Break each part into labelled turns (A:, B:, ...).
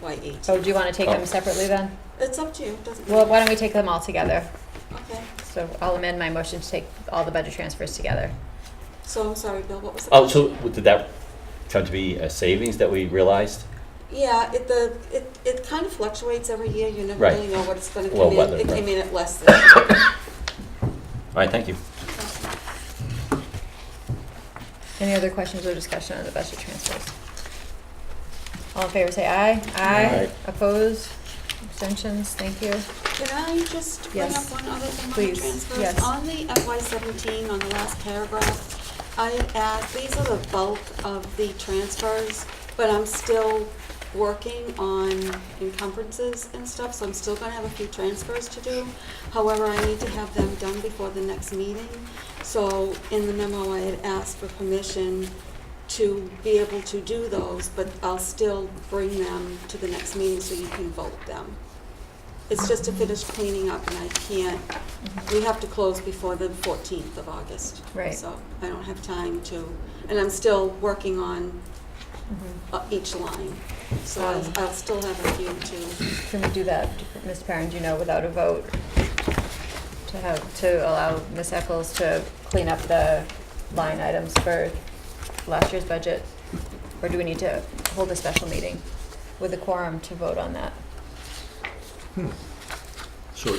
A: by eight.
B: Oh, do you want to take
C: Oh.
B: them separately then?
A: E. It's up to you, doesn't
B: Well,
A: matter.
B: why don't we take them all together?
A: Okay,
B: So I'll amend my motion to take all the budget transfers together.
A: so, sorry, Bill, what was the
C: Oh, so did that come to be a savings that we realized?
A: Yeah, it, the, it, it kind of fluctuates every year, you never
C: Right.
A: really know what it's gonna
C: Well,
A: come in,
C: weather,
A: it came
C: right.
A: in at less than.
C: All right, thank you.
B: Any other questions or discussion on the budget transfers? All in favor, say aye. Aye.
C: Aye.
B: Opposed? Abstentions? Thank you.
A: Can I just bring
B: Yes.
A: up one other thing on the
B: Please.
A: transfers?
B: Yes.
A: On the FY seventeen, on the last paragraph, I add, these are the bulk of the transfers, but I'm still working on encumbrances and stuff, so I'm still gonna have a few transfers to do. However, I need to have them done before the next meeting. So in the memo, I had asked for permission to be able to do those, but I'll still bring them to the next meeting so you can vote them. It's just to finish cleaning up and I can't, we have to close before the fourteenth of August.
B: Right.
A: So I don't have time to, and I'm still working on
B: Mhm.
A: uh, each line. So I'll, I'll still have a few to,
B: Can we do that, Ms. Perrin, do you know, without a vote? To have, to allow Ms. Eccles to clean up the line items for last year's budget? Or do we need to hold a special meeting with a quorum to vote on that?
D: So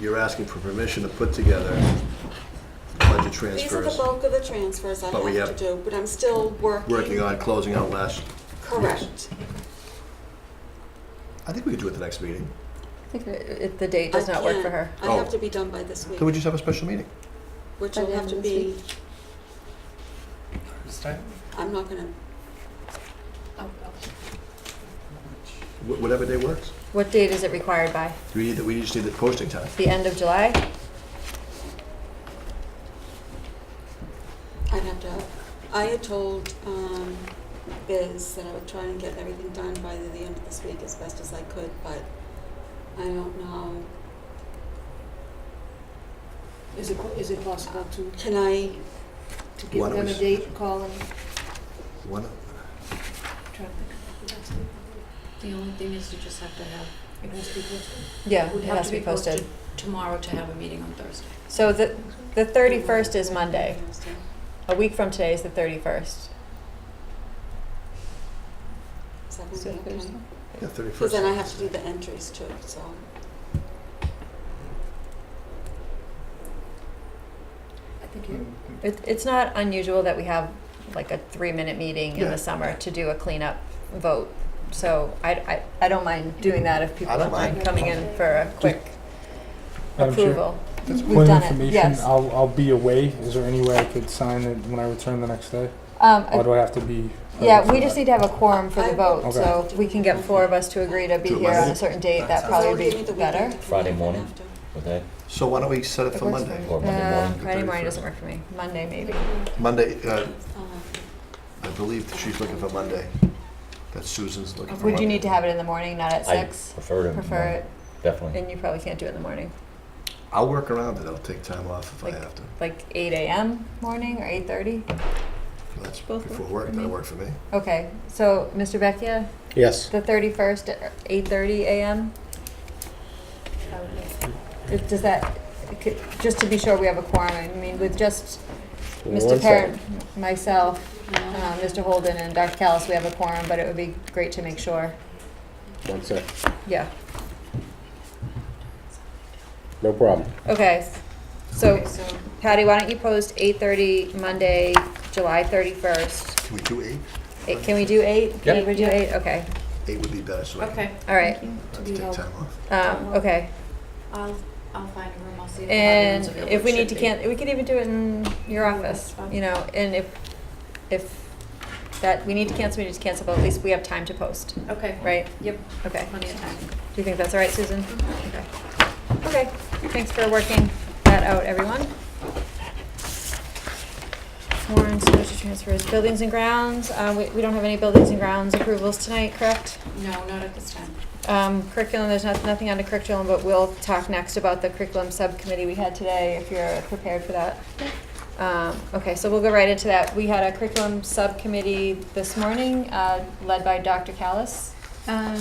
D: you're asking for permission to put together budget
A: these are the
D: transfers,
A: bulk of the transfers I
D: But we
A: have
D: have-
A: to do, but I'm still working.
D: working on closing out last,
A: Correct.
D: I think we could do it the next meeting.
B: I think it- it- the date does
A: I
B: not work for
A: can't.
B: her.
A: I have
D: Oh.
A: to be done by this
D: Then we
A: week,
D: just have a special meeting.
A: which
B: By
A: will
B: the
A: have
B: end
A: to
B: of this
A: be,
B: week?
A: I'm not gonna,
D: Wh- Whatever day works.
B: What date is it required by?
D: Do we need, the- we just need the posting time.
B: The end of July?
A: I'd have to, I had told, um, Biz that I would try and get everything done by the end of this week as best as I could, but I don't know.
E: Is it, is it possible to,
A: Can I,
E: to give
D: Why don't
E: them
D: we
E: a
D: s-
E: date, call and
D: One,
E: try to pick up the best date?
F: The only thing is you just have to have,
E: It has to be posted.
B: Yeah,
F: would
B: it has to be posted.
F: tomorrow to have a meeting on Thursday.
B: So the, the 31st is Monday.
A: Thursday.
B: A week from today is the 31st.
A: Is that
B: Is
A: gonna
B: it
A: be okay?
B: Thursday?
D: yeah,
A: Because
D: thirty-first.
A: then I have to do the entries too, so.
E: I think you,
B: It, it's not unusual that we have like a three-minute meeting in
D: Yeah.
B: the summer to do a cleanup vote. So I, I, I don't mind doing that if people
D: I
B: don't
D: don't
B: mind
D: mind.
B: coming in for a quick
G: Madam Chair,
B: approval.
G: just
B: We've
G: point of
B: done it,
G: information,
B: yes.
G: I'll, I'll be away. Is there any way I could sign it when I return the next day?
B: Um, I-
G: Or do I have to be?
B: yeah, we just need to have a quorum for the
A: I-
B: vote, so
A: Okay.
B: if we can get four of us to agree to be
D: Do it
B: here on
D: Monday?
B: a certain date, that
A: So
B: probably
A: that'll
B: would
A: give me the
B: be
A: weekend
B: better.
A: to clean
C: Friday
A: up and
C: morning?
A: have to-
C: Would that,
D: So why don't we set it
B: It
D: for
B: works for
D: Monday?
B: me.
C: Or Monday
B: Uh,
C: morning, the
B: Friday morning
D: 31st.
B: doesn't work for me, Monday maybe.
D: Monday, uh,
A: I'll have to-
D: I believe that she's looking for Monday. That Susan's looking for Monday.
B: Would you need to have it in the morning, not at
C: I
B: six?
C: prefer to,
B: Prefer it,
C: definitely.
B: and you probably can't do it in the morning,
D: I'll work around it. I'll take time off if I
B: Like-
D: have to.
B: like eight AM morning or eight thirty?
D: If That's
B: Both work
D: before
B: for
D: work,
B: me.
D: that'll work for me.
B: Okay, so Mr. Vecchia,
H: Yes.
B: the thirty-first, eight thirty AM? Does- Does that, c- just to be sure we have a quorum, I mean, with just
H: Give me
B: Mr.
H: one
B: Parrott,
H: second.
B: myself,
A: No.
B: uh, Mr. Holden, and Dr. Callis, we have a quorum, but it would be great to make sure,
H: One sec.
B: yeah.
H: No problem.
B: Okay, so
F: Okay, so
B: Patty, why don't you post eight thirty Monday, July thirty-first?
D: Can we do eight?
B: Can we do eight? Can
C: Yep.
B: everybody do eight? Okay,
D: Eight would be better, so I can
F: Okay,
B: all right,
D: I
E: to
D: have
E: be
D: to take
E: held.
D: time off.
B: um, okay.
F: I'll, I'll find a room, I'll see if the
B: And
F: audience available.
B: if we
F: It
B: need to
F: should be.
B: can, we could even do it in your
E: Yeah,
B: office,
E: that's fine.
B: you know, and if, if that, we need to cancel, we need to cancel, but at least we have time to post,
F: Okay.
B: right?
F: Yep,
B: Okay, do
F: plenty of time.
B: you think that's all right, Susan? Okay.
E: Mm-hmm.
B: Okay, thanks for working that out, everyone. Warrants, budget transfers, buildings and grounds, uh, we, we don't have any buildings and grounds approvals tonight, correct?
F: No, not at this time.
B: Um, curriculum, there's not, nothing on the curriculum, but we'll talk next about the curriculum subcommittee we had today, if you're prepared for that. Um, okay, so we'll go right into that. We had a curriculum subcommittee this morning, uh, led by Dr. Callis.